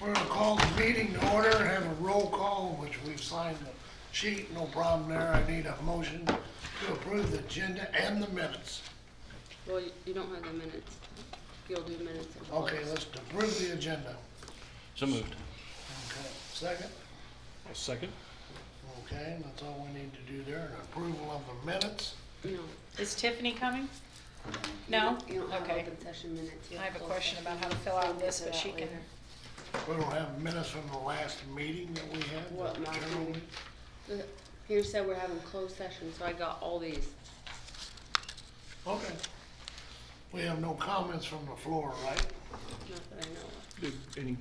We're gonna call the meeting to order and have a roll call, which we've signed the sheet, no problem there. I need a motion to approve the agenda and the minutes. Well, you- you don't have the minutes. You'll do minutes. at Okay, once. let's approve the agenda. So moved. Okay, second? Second? Okay, that's all we need to do there, and approval of the minutes. No. Is Tiffany coming? No? You don't have Okay. open session minutes. You I have have a closed question session about how to minutes. fill We'll out get this, to but that she can, later. We don't have minutes from the last meeting that we had. What, last generally? meeting? The- Peter said we're having closed session, so I got all these. Okay. We have no comments from the floor, right? Not that I know of. Any,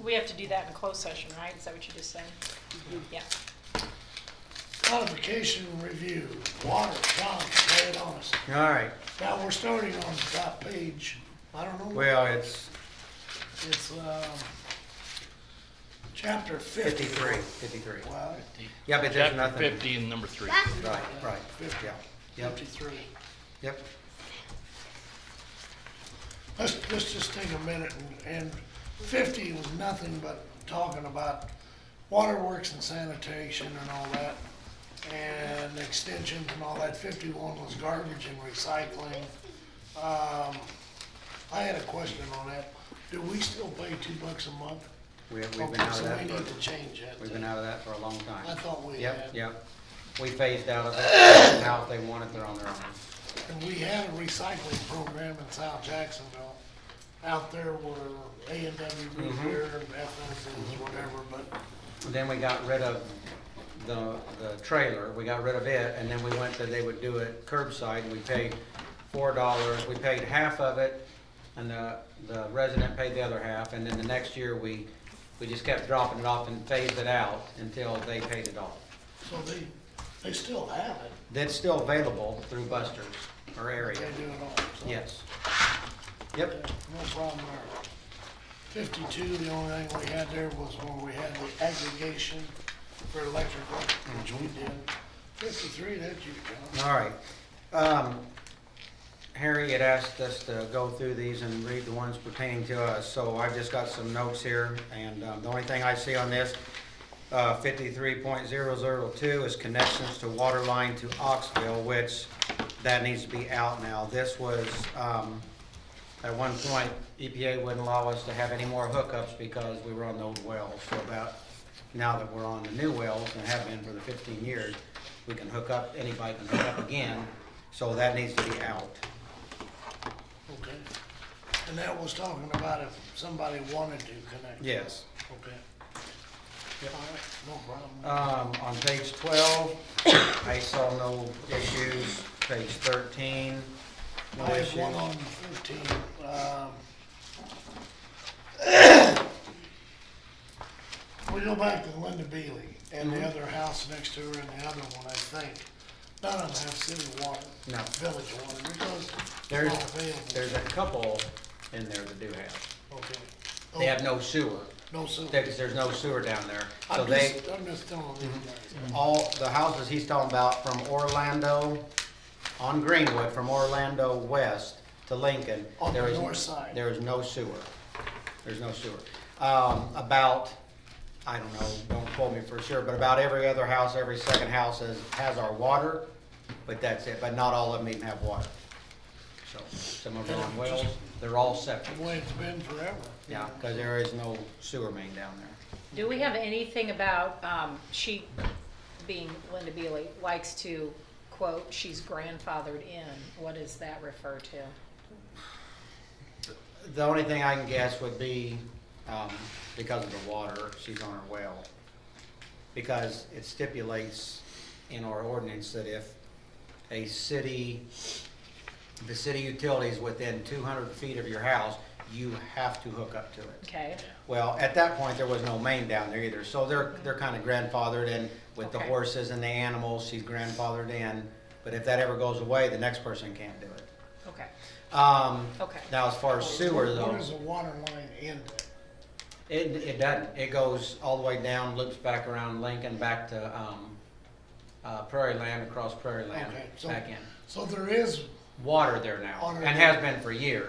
we have to do that in closed session, right? Is that what you just said? Yeah. Codification review, water, John, lay it on us. All right, Now, we're starting on the top page, I don't know, well, it's it's, um, chapter fifty. fifty-three, fifty-three. Well, Yeah, but there's chapter nothing. fifty and number three. Right, right, fifty, yeah, yep, fifty-three. yep. Let's, let's just take a minute and, and fifty was nothing but talking about waterworks and sanitation and all that. And extensions and all that. Fifty-one was garbage and recycling. Um, I had a question on that. Do we still pay two bucks a month? We, we've been Okay, out of so that, we need to for- change that. we've been out of that for a long time. I thought we Yep, had. yep. We phased out of it, now if they want it, they're on their own. And we had a recycling program in South Jacksonville. Out there were A and W Mm-hmm. Repair and FS's, whatever, but And Then we got rid of the, the trailer, we got rid of it, and then we went to, they would do it curbside, and we paid four dollars, we paid half of it, and the, the resident paid the other half, and then the next year, we, we just kept dropping it off and phased it out until they paid it off. So they, they still have it, That's still available through Buster's or they area, do it all. so- yes. Yeah, Yep, No problem there. Fifty-two, the only thing we had there was when we had the aggregation for electrical, which we Mm-hmm. did. Fifty-three, that you, John. all right. Um, Harry had asked us to go through these and read the ones pertaining to us, so I've just got some notes here, and um, the only thing I see on this, uh, fifty-three point zero zero two is connections to water line to Oxville, which that needs to be out now. This was, um, at one point, EPA wouldn't allow us to have any more hookups because we were on the old wells. So about, now that we're on the new wells and have been for the fifteen years, we can hook up, anybody can hook up again, so that needs to be out. Okay. And that was talking about if somebody wanted to connect. Yes. Okay. All right, no problem. Um, on page twelve, I saw no issues. Page thirteen, no I have issues. one on fifteen, um. We go back to Linda Bealey and the Mhm. other house next to her and the other one, I think. None of them have city water. No. Village water, because they're There's- not available. There's a couple in there that do have. Okay. Oh. They have no sewer, No sewer. because there's no sewer down there. So I'm they, Mm-hmm. just, I'm just telling you. guys. all, the houses he's talking about from Orlando on Greenwood, from Orlando west to Lincoln. On the there is- north side. There is no sewer. There's no sewer. Um, about, I don't know, don't quote me for sure, but about every other house, every second house has, has our water, but that's it, but not all of them even have water. So, some of them are on wells, they're all septic. The way it's been forever. Yeah, cause there is no sewer main down there. Do we have anything about, um, she, being Linda Bealey, likes to quote, she's grandfathered in. What does that refer to? The only thing I can guess would be, um, because of the water, she's on her well. Because it stipulates in our ordinance that if a city, the city utilities within two hundred feet of your house, you have to hook up to it. Okay, Well, at that point, there was no main down there either, so they're, they're kind of grandfathered in with the Okay. horses and the animals, she's grandfathered in. But if that ever goes away, the next person can't do it. okay, Um, okay. now as far as sewer though. Where does the water line end at? It, it doesn't. It goes all the way down, loops back around Lincoln, back to, um, uh, Prairie Land, across Prairie Land, Okay, so- back in. So there is Water there now, Water and has been for years.